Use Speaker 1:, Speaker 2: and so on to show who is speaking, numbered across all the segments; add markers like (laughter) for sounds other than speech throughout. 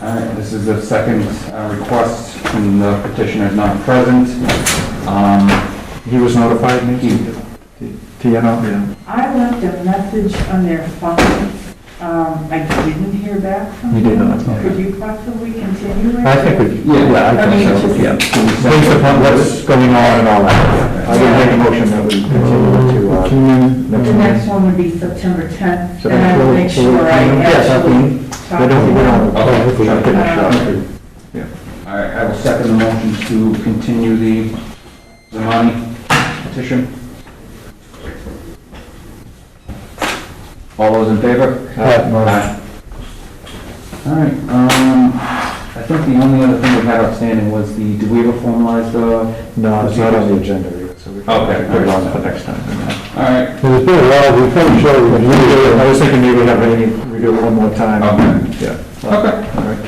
Speaker 1: All right, this is the second uh, request from the petitioner is not present. Um,
Speaker 2: He was notified, maybe? TNO? Yeah.
Speaker 3: I left a message on their phone. Um, I didn't hear back from
Speaker 2: You
Speaker 3: them.
Speaker 2: did not, no.
Speaker 3: Could you possibly continue it?
Speaker 2: I think we, yeah, yeah, I
Speaker 3: I mean,
Speaker 2: think so,
Speaker 3: it's just-
Speaker 2: yeah. Based upon what's going on and all that. I would make a motion that we continue to, uh,
Speaker 3: The
Speaker 2: next
Speaker 3: next
Speaker 2: one.
Speaker 3: one would be September 10th,
Speaker 2: So
Speaker 3: and I will
Speaker 2: we'll-
Speaker 3: make sure I
Speaker 2: we'll- Yes, I
Speaker 3: actually
Speaker 2: mean,
Speaker 3: talk
Speaker 2: we
Speaker 3: to
Speaker 2: don't, we
Speaker 3: them.
Speaker 2: don't. Okay. Jump in the shop.
Speaker 1: All right, I will second the motion to continue the Zamani petition. All those in favor?
Speaker 2: Aye.
Speaker 1: All right, um, I think the only other thing we had outstanding was the, did we ever formalize the?
Speaker 2: No, it's not on the agenda yet, so we can
Speaker 1: Okay.
Speaker 2: put it on for next time.
Speaker 1: All right,
Speaker 2: There's been a lot, we probably should. I was thinking maybe have any, we do it one more time.
Speaker 1: Okay.
Speaker 2: Yeah.
Speaker 1: okay.
Speaker 2: All right.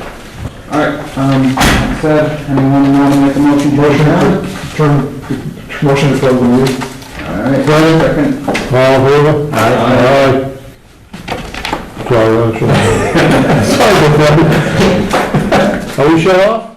Speaker 1: All right, um, that said, anyone want to make a motion? to
Speaker 2: Motion,
Speaker 1: adjourn?
Speaker 2: to turn- motion to close the meeting.
Speaker 1: All right, second.
Speaker 2: All in favor?
Speaker 1: Aye.
Speaker 2: (laughs) Sorry, I'm sorry. Are we shut off?